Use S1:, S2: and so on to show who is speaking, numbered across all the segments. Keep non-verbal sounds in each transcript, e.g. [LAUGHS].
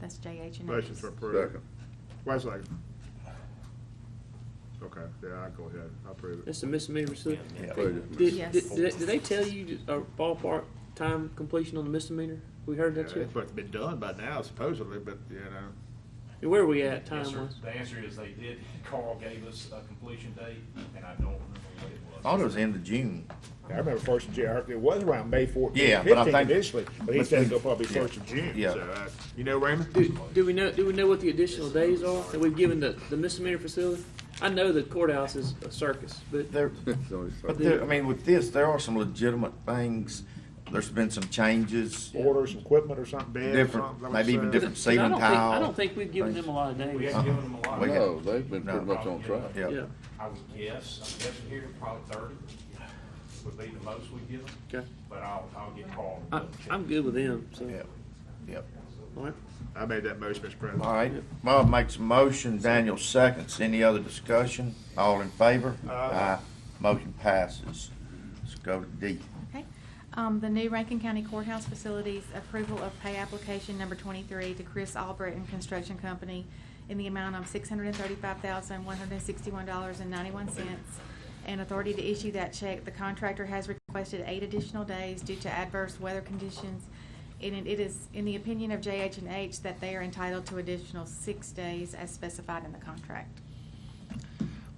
S1: That's JH and
S2: Motion
S1: H's.
S2: to approve.
S3: Second.
S2: Wait a second. Okay, yeah, I go ahead, I approve it.
S4: That's a misdemeanor, so.
S3: Please.
S4: Did,
S1: Yes.
S4: did, did, did they tell you a ballpark time completion on the misdemeanor? We heard that
S2: Yeah,
S4: yet?
S2: It's supposed to be done by now supposedly, but, you know,
S4: Where are we at
S5: Yes, sir.
S4: time wise?
S5: The answer is they did. [LAUGHS] Carl gave us a completion date, and I don't remember what it was.
S6: Thought it was end of June.
S2: I remember first of June, it was around May
S6: Yeah,
S2: fourteenth,
S6: but I
S2: fifteenth
S6: think-
S2: initially, but he
S6: but
S2: said
S6: then-
S2: it'll probably
S6: yeah,
S2: first of June,
S6: yeah.
S2: so, uh, you know, Raymond?
S4: Do, do we know, do we know what the additional days are that we've given the, the misdemeanor facility? I know the courthouse is a circus, but
S6: There,
S3: It's only
S6: but
S3: second.
S6: there, I mean, with this, there are some legitimate things. There's been some changes,
S2: Order some equipment or something, beds or
S6: Different-
S2: something. like
S6: maybe even
S2: so.
S6: different
S4: And I
S6: ceiling
S4: don't think, I
S6: tile.
S4: don't think we've given them a lot of
S5: We
S4: days.
S5: haven't given them a lot.
S6: Uh-huh.
S3: No, they've been pretty much on track.
S6: Yeah.
S4: Yeah.
S5: I would guess, I'm guessing here, probably thirty would be the most we give them,
S4: Okay.
S5: but I'll, I'll get Carl. to
S4: I,
S5: double check.
S4: I'm good with them, so.
S6: Yep, yep.
S4: All right.
S2: I made that motion, Mr. President.
S6: All right, Bob makes a motion, Daniel seconds. Any other discussion? All in favor? Aye. Motion passes. Let's go to D.
S1: Okay. Um, the new Rankin County Courthouse Facilities approval of pay application number twenty-three to Chris Albrecht and Construction Company in the amount of six hundred and thirty-five thousand, one hundred and sixty-one dollars and ninety-one cents. And authority to issue that check. The contractor has requested eight additional days due to adverse weather conditions. And it- it is, in the opinion of JH and H, that they are entitled to additional six days as specified in the contract.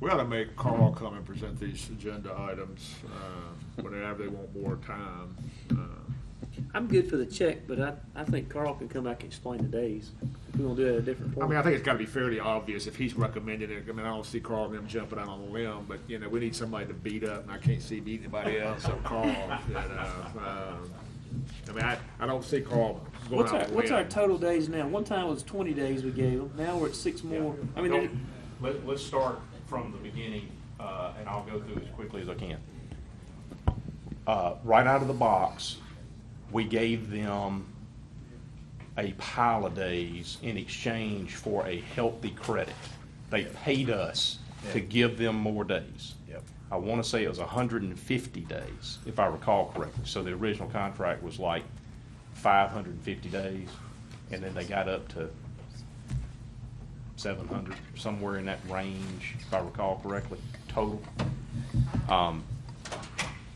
S2: We ought to make Carl come and present these agenda items, uh, whenever they want more time. Uh,
S4: I'm good for the check, but I, I think Carl can come back and explain the days. If we want to do it at a different point.
S2: I mean, I think it's gotta be fairly obvious if he's recommending it. I mean, I don't see Carl and them jumping out on a limb, but, you know, we need somebody to beat up, and I can't see beating anybody else, so Carl, you know, um, I mean, I, I don't see Carl going
S4: What's
S2: out on
S4: our,
S2: a limb.
S4: what's our total days now? One time it was twenty days we gave them, now we're at six more. I mean,
S5: Don't-
S4: there-
S5: Let, let's start from the beginning, uh, and I'll go through as quickly as I can. Uh, right out of the box, we gave them a pile of days in exchange for a healthy credit. They paid us to
S6: Yeah.
S5: give them more days.
S6: Yep.
S5: I want to say it was hundred and fifty days, if I recall correctly. So the original contract was like five hundred and fifty days, and then they got up to seven hundred, somewhere in that range, if I recall correctly, total. Um,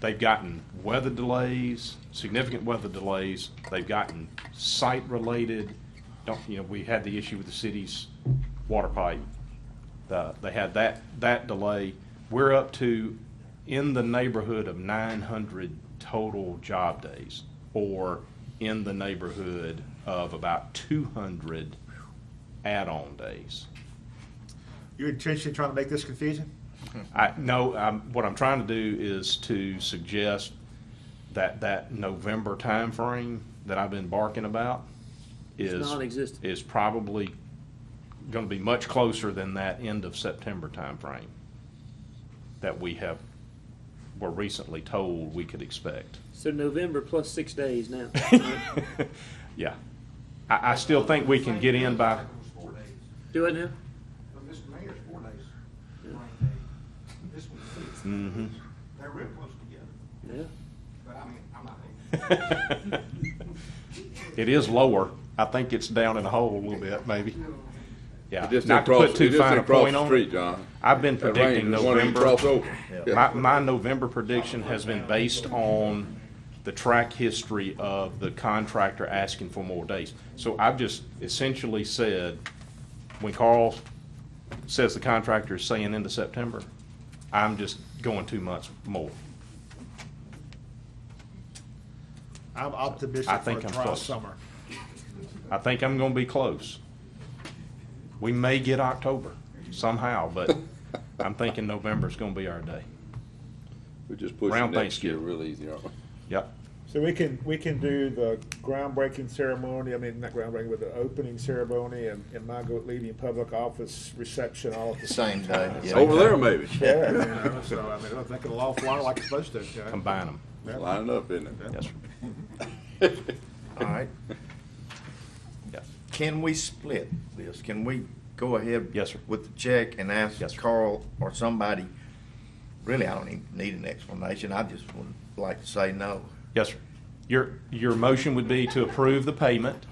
S5: They've gotten weather delays, significant weather delays. They've gotten site-related, don't, you know, we had the issue with the city's water pipe. The- They had that, that delay. We're up to in the neighborhood of nine hundred total job days, or in the neighborhood of about two hundred add-on days.
S2: You're intentionally trying to make this confusing?
S5: I, no, I'm, what I'm trying to do is to suggest that that November timeframe that I've been barking about
S4: It's
S5: is.
S4: non-existent.
S5: Is probably gonna be much closer than that end of September timeframe that we have, were recently told we could expect.
S4: so November plus six days now.
S5: Yeah. I, I still think we can get in by,
S7: Four days.
S4: Do it now?
S7: No, Mr. Mayor's four days, rain day. This one's six. They're real close together,
S4: Yeah.
S7: but I mean, I'm not.
S5: [LAUGHS] it is lower. I think it's down in the hole a little bit, maybe. Yeah.
S3: It just
S5: Not
S3: didn't
S5: to put
S3: cross-
S5: too
S3: it just
S5: fine
S3: didn't
S5: a
S3: cross
S5: point
S3: the
S5: on it.
S3: street, John.
S5: I've been
S3: That rain
S5: predicting
S3: just wanted to cross
S5: November.
S3: over.
S5: My, my November prediction has been based on the track history of the contractor asking for more days. So I've just essentially said, when Carl says the contractor is saying into September, I'm just going two months more.
S2: I'm
S5: I
S2: optimistic for a
S5: think I'm
S2: trial
S5: close.
S2: summer.
S5: I think I'm gonna be close. We may get October somehow, but I'm thinking November's gonna be our day.
S3: We just pushed
S5: Around
S3: next year
S5: Thanksgiving.
S3: real easy, aren't we?
S5: Yep.
S2: So we can, we can do the groundbreaking ceremony, I mean, not groundbreaking, but the opening ceremony and, and Margot leading public office reception all at the same.
S6: Same day. yeah.
S3: Over there, maybe.
S2: Yeah, you know, so I mean, I think it'll all fly like it's supposed to. okay?
S5: Combine them.
S3: Lining up, isn't it?
S5: Yes, sir.
S6: All right.
S5: Yes.
S6: Can we split this? Can we go ahead?
S5: Yes, sir.
S6: With the check and ask
S5: Yes, sir.
S6: Carl or somebody, really, I don't even need an explanation. I just would like to say no.
S5: Yes, sir. Your, your motion would be to approve the payment